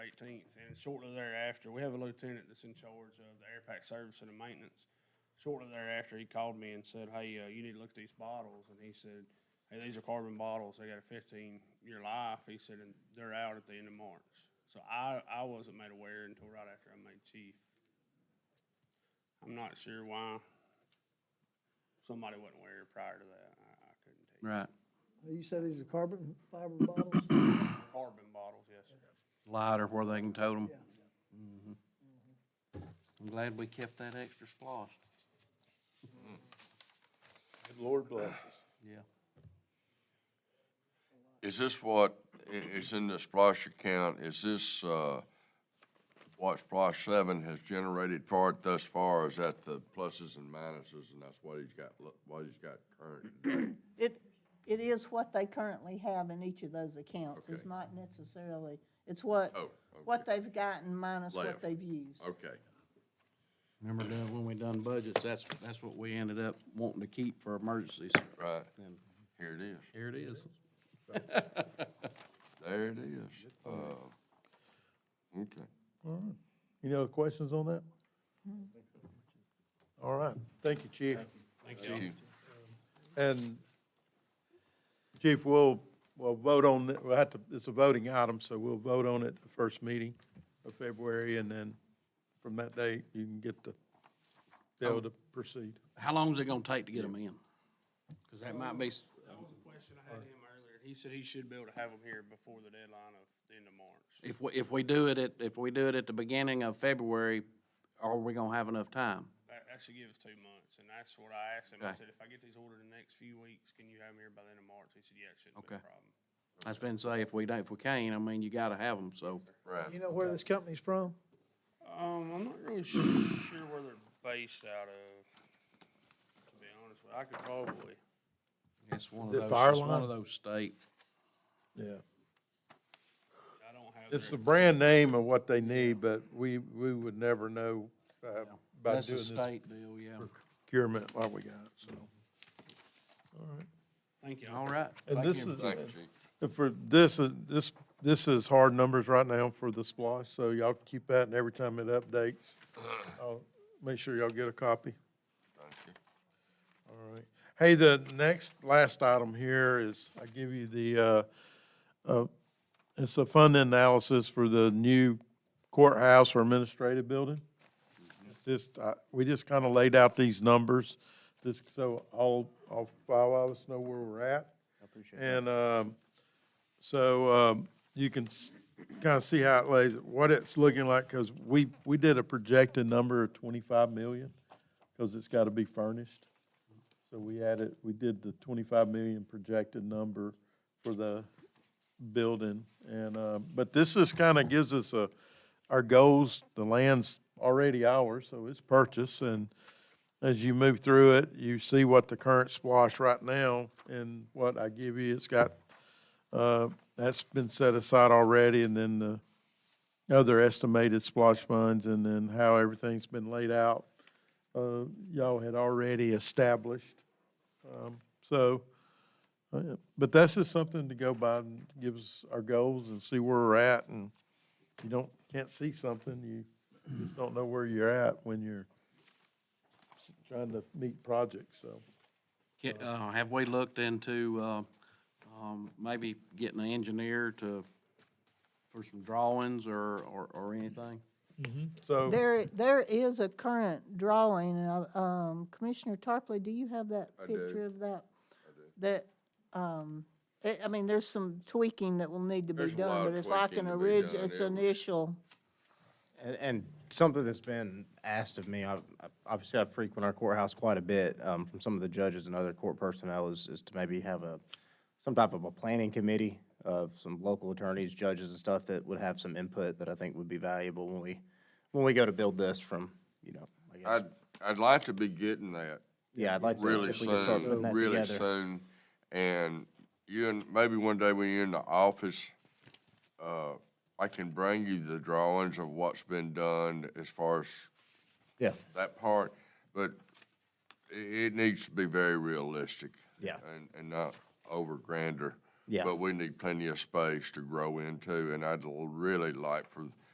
fourteenth, and shortly thereafter, we have a lieutenant that's in charge of the air pack service and the maintenance. Shortly thereafter, he called me and said, hey, uh, you need to look at these bottles, and he said, hey, these are carbon bottles, they got a fifteen-year life, he said, and they're out at the end of March. So I, I wasn't made aware until right after I made chief. I'm not sure why somebody wasn't aware prior to that, I, I couldn't tell you. Right. You said these are carbon fiber bottles? Carbon bottles, yes, sir. Lighter where they can tote them. Yeah. Mm-hmm. I'm glad we kept that extra splosh. Lord bless us. Yeah. Is this what i- is in the Splash account, is this, uh, what Splash seven has generated for it thus far, is that the pluses and minuses, and that's what he's got, lo- what he's got current today? It, it is what they currently have in each of those accounts. It's Okay. not necessarily, it's what, Oh, what they've gotten minus Left. what they've used. Okay, Remember done, when we done budgets, that's, that's what we ended up wanting to keep for emergencies. right, And here it is, here it is. there it is, uh, okay. Any other questions on that? All right, thank you, chief. Thank you. And chief, we'll, we'll vote on, it. we'll have to, it's a voting item, so we'll vote on it the first meeting of February, and then from that date, you can get the bill to proceed. How long is it gonna take to get them in? Cause that might be, s- That was a question I had him earlier. He said he should be able to have them here before the deadline of the end of March. if we, if we do it at, if we do it at the beginning of February, are we gonna have enough time? That, that should give us two months, and that's what I asked him. I Okay. said, if I get these ordered in the next few weeks, can you have them here by the end of March? He said, yeah, it shouldn't be a Okay. problem. I was gonna say, if we don't, if we can't, I mean, you gotta have them, so. Right, You know where this company's from? Um, I'm not really sure, sure where they're based out of, to be honest with you. I could probably, It's one of The those, fire it's one line? of those state. Yeah. I don't have. It's the their- brand name of what they need, but we, we would never know uh, by doing That's a this state deal, yeah. procurement like we got, so. All right. Thank you. All right. And Thank this you. is, thank you, chief. And For this, is- this, this is hard numbers right now for the splosh, so y'all can keep that, and every time it updates, I'll make sure y'all get a copy. Thank you. All right. Hey, the next, last item here is, I give you the, uh, uh, it's a fund analysis for the new courthouse or administrative building. It's just, uh, we just kind of laid out these numbers, just so all, all five of us know where we're at. I appreciate that. And, um, so, um, you can kind of see how it lays, what it's looking like, because we, we did a projected number of twenty-five million, because it's got to be furnished. So we added, we did the twenty-five million projected number for the building. And, uh, but this is kind of gives us a, our goals, the land's already ours, so it's purchased. And as you move through it, you see what the current splosh right now and what I give you, it's got, uh, that's been set aside already and then the other estimated splosh funds and then how everything's been laid out uh, y'all had already established. Um, So, uh, but that's just something to go by and give us our goals and see where we're at. And if you don't, can't see something, you just don't know where you're at when you're s- trying to meet projects, so. Ca- uh, Have we looked into uh, um, maybe getting an engineer to, for some drawings or, or or anything? So, There, there is a current drawing, and, I- um, Commissioner Tarpley, do you have that I do. picture of that? That, um, I, I mean, there's some tweaking that will need to be There's a lot done, of but it's like tweaking an to be orig, done. it's It was- initial. And, and something that's been asked of me, I, I- obviously I frequent our courthouse quite a bit, um, from some of the judges and other court personnel is, is to maybe have a, some type of a planning committee of some local attorneys, judges and stuff that would have some input that I think would be valuable when we, when we go to build this from, you know, I guess. I'd, I'd like to be getting that Yeah, I'd like to, really if we could start putting soon, that really together. soon. And you, and maybe one day when you're in the office, uh, I can bring you the drawings of what's been done as far as Yeah, that part, but i- it needs to be very realistic. Yeah. And, and not over grander. Yeah. But we need plenty of space to grow into, and I'd l- really like for